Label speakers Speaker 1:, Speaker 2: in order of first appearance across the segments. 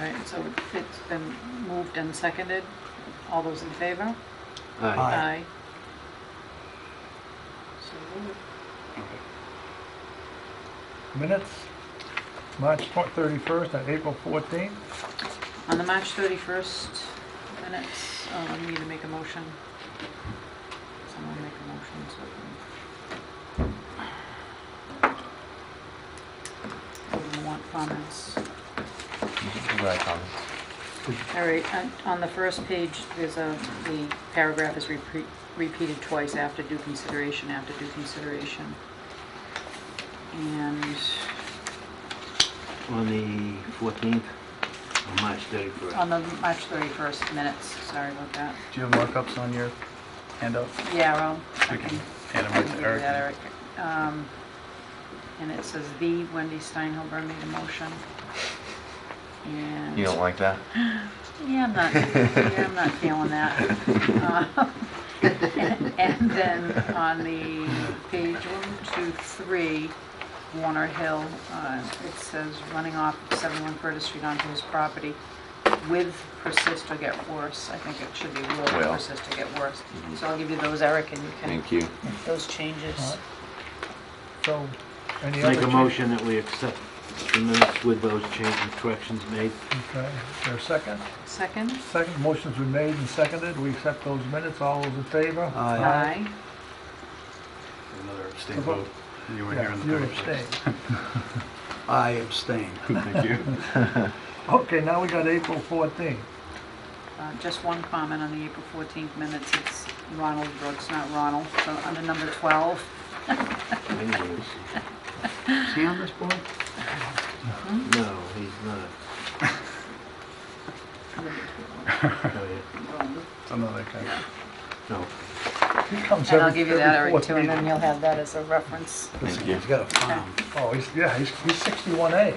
Speaker 1: right, so it's been moved and seconded. All those in favor?
Speaker 2: Aye.
Speaker 1: Aye.
Speaker 2: Aye.
Speaker 1: So moved.
Speaker 3: Minutes, March twen- 31st and April 14th.
Speaker 1: On the March 31st minutes, um, we need to make a motion. Someone make a motion, so. we can- We want comments.
Speaker 2: Right, comments.
Speaker 1: All right, on- on the first page, there's a, the paragraph is repeat- repeated twice after due consideration, after due consideration. And
Speaker 2: On the 14th, on March 31st.
Speaker 1: on the March 31st minutes, sorry about that.
Speaker 4: Do you have markups on your handout?
Speaker 1: Yeah, well, I
Speaker 4: We can
Speaker 1: can
Speaker 4: hand them
Speaker 1: I
Speaker 4: right
Speaker 1: can
Speaker 4: to
Speaker 1: give
Speaker 4: Eric.
Speaker 1: that, Eric. Um, And it says the Wendy Steinhilber made a motion. And,
Speaker 5: You don't like that?
Speaker 1: yeah, I'm not, yeah, I'm not feeling that. Uh, And then on the page one, two, three, Warner Hill, uh, it says running off of 71 Curtis Street onto his property with persist or get worse. I think it should be will
Speaker 5: Will.
Speaker 1: persist or get worse. So I'll give you those, Eric, and you can,
Speaker 5: Mm-hmm. Thank you.
Speaker 1: those changes.
Speaker 3: Alright. So, any other?
Speaker 2: Make a
Speaker 3: change-
Speaker 2: motion that we accept the minutes with those changes and corrections made.
Speaker 3: Okay, is there a second?
Speaker 1: Second?
Speaker 3: Second, motions were made and seconded, we accept those minutes, all those in favor?
Speaker 1: Aye.
Speaker 4: Another abstain
Speaker 3: vote.
Speaker 4: You were here
Speaker 3: Yeah,
Speaker 4: in
Speaker 3: you
Speaker 4: the first
Speaker 3: abstain.
Speaker 4: place. I abstain. Thank you.
Speaker 3: Okay, now we got April 14th.
Speaker 1: Uh, Just one comment on the April 14th minutes, it's Ronald Brooks, not Ronald, so under number 12.
Speaker 2: No,
Speaker 4: Is he on this board?
Speaker 2: he's not. No, Oh, yeah.
Speaker 4: Another guy.
Speaker 2: No.
Speaker 3: He comes
Speaker 1: And I'll
Speaker 3: every-
Speaker 1: give you that,
Speaker 3: every
Speaker 1: Eric,
Speaker 3: fourth
Speaker 1: too, and then
Speaker 3: meeting.
Speaker 1: you'll have that as a reference.
Speaker 5: Thank you.
Speaker 4: He's got a farm.
Speaker 3: Oh, he's, yeah, he's he's 61A.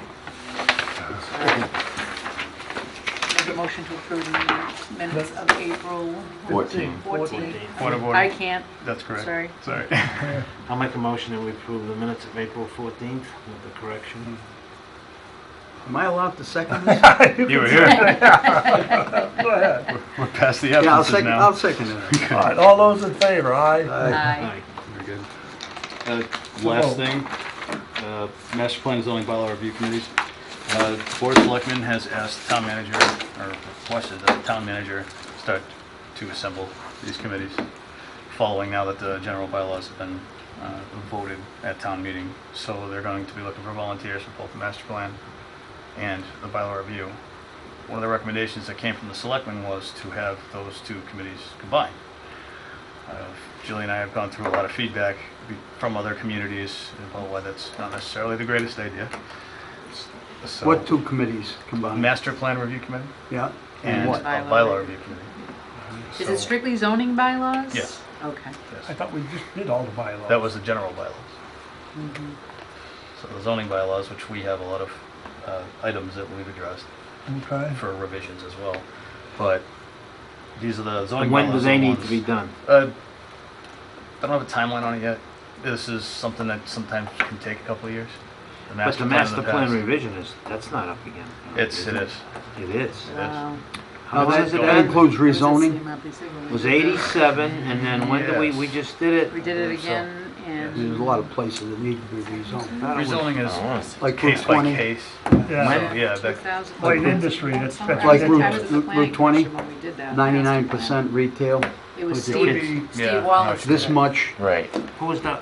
Speaker 1: Make a motion to approve the minutes of April
Speaker 5: Fourteen.
Speaker 1: 14th.
Speaker 4: Point of
Speaker 1: I
Speaker 4: order.
Speaker 1: can't,
Speaker 4: That's correct.
Speaker 1: Sorry.
Speaker 4: Sorry.
Speaker 2: I'll make a motion that we approve the minutes of April 14th with the correction.
Speaker 6: Am I allowed to second this?
Speaker 4: You were here.
Speaker 3: Go ahead.
Speaker 4: We're past the
Speaker 6: Yeah, I'll
Speaker 4: absences
Speaker 6: second,
Speaker 4: now.
Speaker 6: I'll second it.
Speaker 3: All right, all those in favor, aye?
Speaker 1: aye.
Speaker 4: We're good.
Speaker 7: Uh,
Speaker 3: Oh.
Speaker 7: Last thing, uh, master plan and zoning bylaw review committees. Uh, the Board of Selectmen has asked town manager, or requested that the town manager start to assemble these committees, following now that the general bylaws have been uh, voted at town meeting. So they're going to be looking for volunteers for both the master plan and the bylaw review. One of the recommendations that came from the selectmen was to have those two committees combined. Uh, Julie and I have gone through a lot of feedback be- from other communities about why that's not necessarily the greatest idea. So-
Speaker 6: What two committees combined?
Speaker 7: Master Plan Review Committee
Speaker 6: Yeah,
Speaker 7: and a
Speaker 1: what?
Speaker 7: bylaw review committee.
Speaker 1: Is
Speaker 7: So-
Speaker 1: it strictly zoning bylaws?
Speaker 7: Yes.
Speaker 1: Okay.
Speaker 3: I
Speaker 7: Yes.
Speaker 3: thought we just did all the bylaws.
Speaker 7: That was the general bylaws.
Speaker 1: Mm-hmm.
Speaker 7: So the zoning bylaws, which we have a lot of uh, items that we've addressed
Speaker 3: Okay.
Speaker 7: for revisions as well, but these are the zoning
Speaker 2: And
Speaker 7: bylaws.
Speaker 2: when do they
Speaker 7: are the
Speaker 2: need to
Speaker 7: ones-
Speaker 2: be done?
Speaker 7: Uh, I don't have a timeline on it yet. This is something that sometimes can take a couple of years. The
Speaker 2: But the
Speaker 7: in
Speaker 2: master plan
Speaker 7: past-
Speaker 2: revision is, that's not up again.
Speaker 7: It's, it is.
Speaker 2: It is.
Speaker 1: Wow.
Speaker 2: How
Speaker 7: Now,
Speaker 2: much
Speaker 7: that-
Speaker 2: has it
Speaker 6: that
Speaker 2: been?
Speaker 6: includes
Speaker 1: What does it
Speaker 6: rezoning.
Speaker 1: seem up to say?
Speaker 2: It was 87, and then when did we,
Speaker 7: Yes.
Speaker 2: we just did it?
Speaker 1: We did it
Speaker 7: So-
Speaker 1: again in
Speaker 6: There's a lot of places that need to be rezoned. I don't want-
Speaker 7: Rezoning
Speaker 5: I don't
Speaker 7: is
Speaker 5: want to-
Speaker 6: Like Route
Speaker 7: case by
Speaker 6: 20,
Speaker 7: case.
Speaker 3: Oh, Yeah.
Speaker 2: When-
Speaker 7: yeah, that-
Speaker 1: 2000.
Speaker 3: Light industry, that's- that's-
Speaker 1: I was
Speaker 6: Like Route-
Speaker 1: I was at the
Speaker 6: Route
Speaker 1: planning
Speaker 6: 20,
Speaker 1: commission when we did that.
Speaker 6: 99% retail,
Speaker 1: It was
Speaker 2: It
Speaker 3: Would
Speaker 1: Steve,
Speaker 3: be-
Speaker 7: Yeah,
Speaker 1: Steve Wallace.
Speaker 7: no,
Speaker 6: this much
Speaker 5: Right.
Speaker 2: Who was that?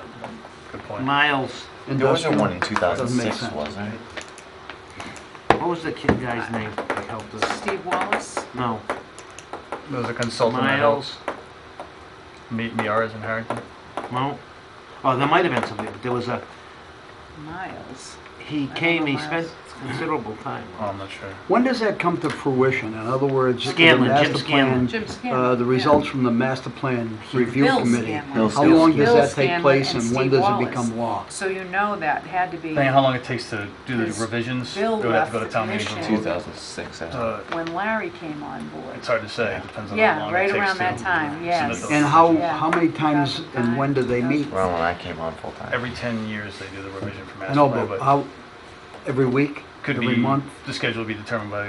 Speaker 7: Good point.
Speaker 2: Miles,
Speaker 5: There was
Speaker 6: industrial.
Speaker 5: one in
Speaker 6: Doesn't make
Speaker 5: 2006,
Speaker 6: sense.
Speaker 5: wasn't it?
Speaker 2: what was the kid guy's name that helped us?
Speaker 1: Steve Wallace.
Speaker 2: No,
Speaker 7: There was a consultant that helped
Speaker 2: Miles,
Speaker 7: meet Miaras in Harrington.
Speaker 2: no. Oh, there might have been something, but there was a,
Speaker 1: Miles.
Speaker 2: he
Speaker 1: I
Speaker 2: came, he
Speaker 1: remember
Speaker 2: spent
Speaker 1: Miles.
Speaker 2: considerable time.
Speaker 7: Oh, I'm not sure.
Speaker 6: When does that come to fruition? In other words, the
Speaker 2: Scanlon, Jim
Speaker 6: master
Speaker 2: Scanlon.
Speaker 6: plan,
Speaker 1: Jim
Speaker 6: uh,
Speaker 1: Scanlon.
Speaker 6: the results from the master plan review
Speaker 1: Bill
Speaker 6: committee.
Speaker 1: Scanlon.
Speaker 5: Bill
Speaker 6: How long
Speaker 5: Bill
Speaker 6: does that take
Speaker 1: Scanlon
Speaker 6: place
Speaker 1: and
Speaker 6: and when
Speaker 1: Steve
Speaker 6: does it
Speaker 1: Wallace.
Speaker 6: become law?
Speaker 1: So you know that had to be
Speaker 7: Depending how long it takes to do the
Speaker 1: Because
Speaker 7: revisions, it
Speaker 1: Bill
Speaker 7: would have to go to
Speaker 1: left
Speaker 7: town
Speaker 1: the
Speaker 7: meeting. for
Speaker 1: commission.
Speaker 7: approval.
Speaker 5: 2006, I think.
Speaker 7: Uh,
Speaker 1: when Larry came on board.
Speaker 7: It's hard to say, it depends on how
Speaker 1: Yeah,
Speaker 7: long
Speaker 1: right
Speaker 7: it takes
Speaker 1: around that
Speaker 7: to.
Speaker 1: time, yes.
Speaker 7: those-
Speaker 6: And how,
Speaker 1: Yeah.
Speaker 6: how many times and when do they meet?
Speaker 5: Around when I came on full time.
Speaker 7: Every 10 years, they do the revision for
Speaker 6: I
Speaker 7: master
Speaker 6: know,
Speaker 7: plan,
Speaker 6: but
Speaker 7: but
Speaker 6: how, every week,
Speaker 7: could
Speaker 6: every
Speaker 7: be,
Speaker 6: month?
Speaker 7: the schedule would be determined by